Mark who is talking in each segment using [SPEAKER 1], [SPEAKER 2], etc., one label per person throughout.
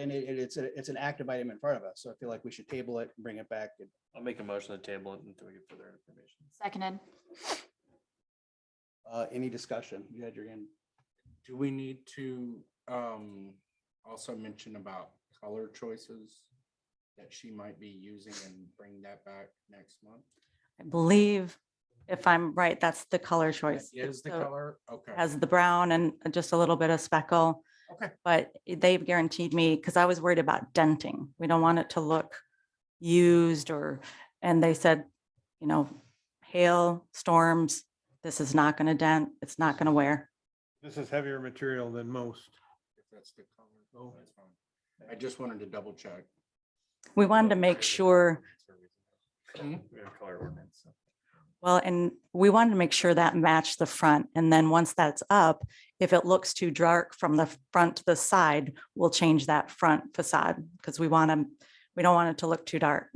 [SPEAKER 1] And it, it- it's, a- it's an active item in front of us, so I feel like we should table it, and bring it back. and-
[SPEAKER 2] I'll make a motion to table it until we get further information.
[SPEAKER 3] Seconded.
[SPEAKER 1] Uh, any discussion? You had your hand.
[SPEAKER 4] Do we need to um also mention about color choices that she might be using and bring that back next month?
[SPEAKER 5] I believe, if I'm right, that's the color choice.
[SPEAKER 4] That Is the color, okay.
[SPEAKER 5] Has the brown and just a little bit of speckle.
[SPEAKER 4] Okay.
[SPEAKER 5] But they've guaranteed me, because I was worried about denting. We don't want it to look used or, and they said, you know, hail, storms, this is not going to dent, it's not going to wear.
[SPEAKER 6] This is heavier material than most.
[SPEAKER 4] If that's the color,
[SPEAKER 6] Oh.
[SPEAKER 4] that's fine. I just wanted to double check.
[SPEAKER 5] We wanted to make sure
[SPEAKER 2] We
[SPEAKER 4] Hmm?
[SPEAKER 2] have color ordinance. so.
[SPEAKER 5] Well, and we wanted to make sure that matched the front. And then once that's up, if it looks too dark from the front to the side, we'll change that front facade because we want to, we don't want it to look too dark.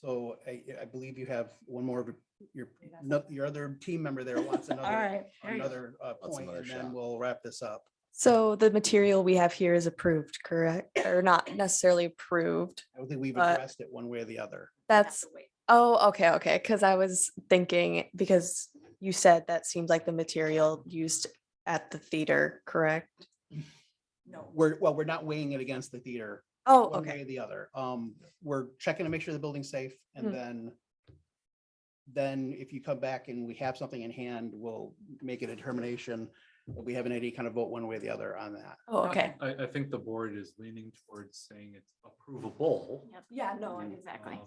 [SPEAKER 1] So I, I believe you have one more, of your, no- your other team member there wants another, another uh, point,
[SPEAKER 7] another
[SPEAKER 1] and then
[SPEAKER 7] shot.
[SPEAKER 1] we'll wrap this up.
[SPEAKER 8] So the material we have here is approved, correct? Or not necessarily approved.
[SPEAKER 1] I don't think we've
[SPEAKER 8] Uh,
[SPEAKER 1] addressed it one way or the other.
[SPEAKER 8] That's, oh, okay, okay. Cause I was thinking, because you said that seems like the material used at the theater, correct?
[SPEAKER 5] No.
[SPEAKER 1] We're, well, we're not weighing it against the theater.
[SPEAKER 8] Oh,
[SPEAKER 1] one way
[SPEAKER 8] okay.
[SPEAKER 1] or the other. Um, we're checking to make sure the building's safe and
[SPEAKER 8] Hmm.
[SPEAKER 1] then then if you come back and we have something in hand, we'll make a determination. But we haven't had any kind of vote one way or the other on that.
[SPEAKER 8] Oh, okay.
[SPEAKER 9] I, I think the board is leaning towards saying it's approvable.
[SPEAKER 3] Yeah, no,
[SPEAKER 9] um,
[SPEAKER 3] exactly.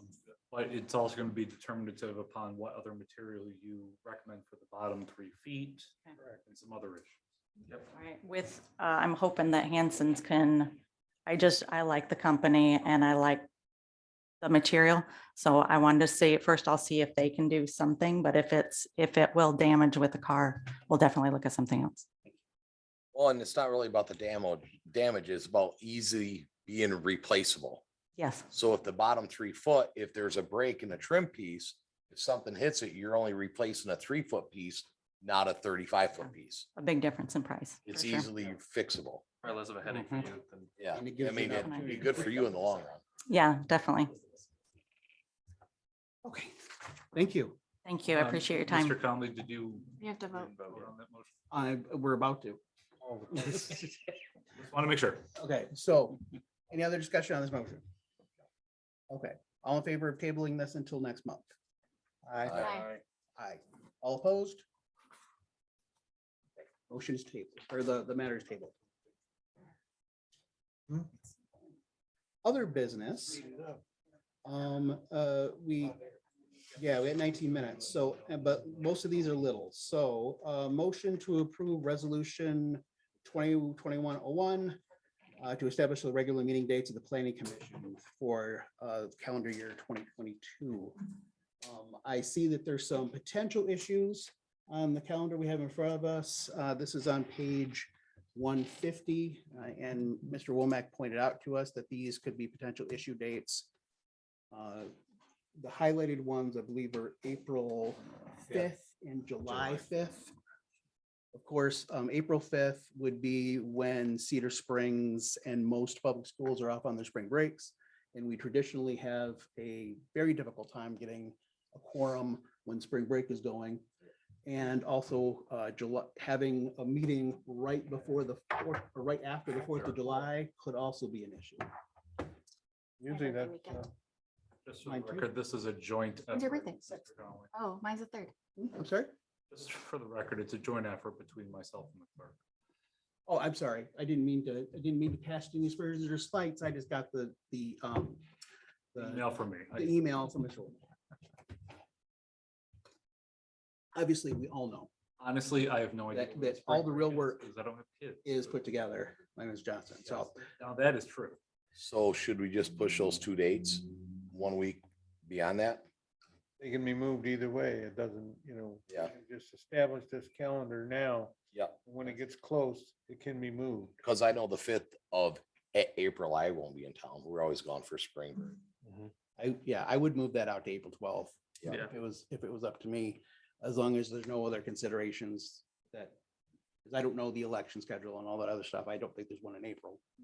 [SPEAKER 9] But it's also going to be determinative upon what other material you recommend for the bottom three feet
[SPEAKER 5] Okay.
[SPEAKER 9] and some other issues.
[SPEAKER 5] With, uh, I'm hoping that Hanson's can, I just, I like the company and I like the material. So I wanted to see, first I'll see if they can do something, but if it's, if it will damage with the car, we'll definitely look at something else.
[SPEAKER 7] Well, and it's not really about the damo damage, it's about easily being replaceable.
[SPEAKER 5] Yes.
[SPEAKER 7] So if the bottom three foot, if there's a break in the trim piece, if something hits it, you're only replacing a three foot piece, not a thirty-five foot piece.
[SPEAKER 5] a big difference in price.
[SPEAKER 7] It's
[SPEAKER 5] for sure.
[SPEAKER 7] easily fixable.
[SPEAKER 2] Probably less of a headache for
[SPEAKER 4] Mhm.
[SPEAKER 9] Mm-hmm.
[SPEAKER 2] you than.
[SPEAKER 7] Yeah,
[SPEAKER 1] And it
[SPEAKER 7] I
[SPEAKER 1] gives you
[SPEAKER 7] mean,
[SPEAKER 1] an
[SPEAKER 7] it'd
[SPEAKER 1] opportunity
[SPEAKER 7] be
[SPEAKER 1] to
[SPEAKER 7] good for
[SPEAKER 1] fix
[SPEAKER 7] you
[SPEAKER 1] up
[SPEAKER 7] in the long run.
[SPEAKER 5] Yeah, definitely.
[SPEAKER 1] Okay, thank you.
[SPEAKER 5] Thank you. I
[SPEAKER 9] Um,
[SPEAKER 5] appreciate your time.
[SPEAKER 9] Mr. Conley, did you?
[SPEAKER 3] We have to
[SPEAKER 9] you
[SPEAKER 3] vote.
[SPEAKER 9] didn't vote on that motion?
[SPEAKER 1] I, we're about to.
[SPEAKER 9] Oh. Just Want to make sure.
[SPEAKER 1] Okay, so any other discussion on this motion? Okay, all in favor of tabling this until next month? Aye.
[SPEAKER 7] Aye.
[SPEAKER 1] Aye. All opposed? Motion is tabled, or the, the matter is tabled. Hmm? Other business. Um, uh, we, yeah, we had nineteen minutes, so, uh, but most of these are little, so, uh, motion to approve resolution twenty twenty-one oh one uh, to establish the regular meeting dates of the planning commission for, uh, calendar year twenty twenty-two. Um, I see that there's some potential issues on the calendar we have in front of us. Uh, this is on page one fifty. Uh, and Mr. Womack pointed out to us that these could be potential issue dates. Uh, The highlighted ones, I believe, are April fifth and July fifth. Of course, um, April fifth would be when Cedar Springs and most public schools are off on their spring breaks. And we traditionally have a very difficult time getting a quorum when spring break is going. And also uh, July, having a meeting right before the fourth, or right after the Fourth of July could also be an issue.
[SPEAKER 6] Usually
[SPEAKER 3] Every
[SPEAKER 6] that's,
[SPEAKER 3] weekend.
[SPEAKER 6] uh,
[SPEAKER 9] Just for the
[SPEAKER 1] Mine too.
[SPEAKER 9] record, this is a joint.
[SPEAKER 3] When's your
[SPEAKER 9] effort,
[SPEAKER 3] birthday?
[SPEAKER 9] Mr. Conley.
[SPEAKER 3] Oh, mine's the third.
[SPEAKER 1] Hmm, I'm sorry?
[SPEAKER 9] Just for the record, it's a joint effort between myself and the clerk.
[SPEAKER 1] Oh, I'm sorry. I didn't mean to, I didn't mean to cast any aspersions or slights. I just got the, the, um, the
[SPEAKER 9] Email for me. I-
[SPEAKER 1] the e- email from Mr. Womack. Obviously, we all know
[SPEAKER 9] Honestly, I have no idea.
[SPEAKER 1] That-
[SPEAKER 9] what
[SPEAKER 1] that
[SPEAKER 9] spring
[SPEAKER 1] all the
[SPEAKER 9] break
[SPEAKER 1] real
[SPEAKER 9] is,
[SPEAKER 1] work
[SPEAKER 9] because I don't have kids.
[SPEAKER 1] is
[SPEAKER 9] so-
[SPEAKER 1] put together by Ms. Johnson. So
[SPEAKER 9] Yes, Now that is true.
[SPEAKER 7] So should we just push those two dates one week beyond that?
[SPEAKER 6] they can be moved either way. It doesn't, you know. we
[SPEAKER 7] Yeah.
[SPEAKER 6] can Just establish this calendar now.
[SPEAKER 7] Yeah.
[SPEAKER 6] When it gets close, it can be moved.
[SPEAKER 7] Because I know the fifth of A- April, I won't be in town. We're always gone for spring. break.
[SPEAKER 1] I, yeah, I would move that out to April twelfth.
[SPEAKER 7] Yeah.
[SPEAKER 1] If it was, if it was up to me, as long as there's no other considerations that Because I don't know the election schedule and all that other stuff. I don't think there's one in April.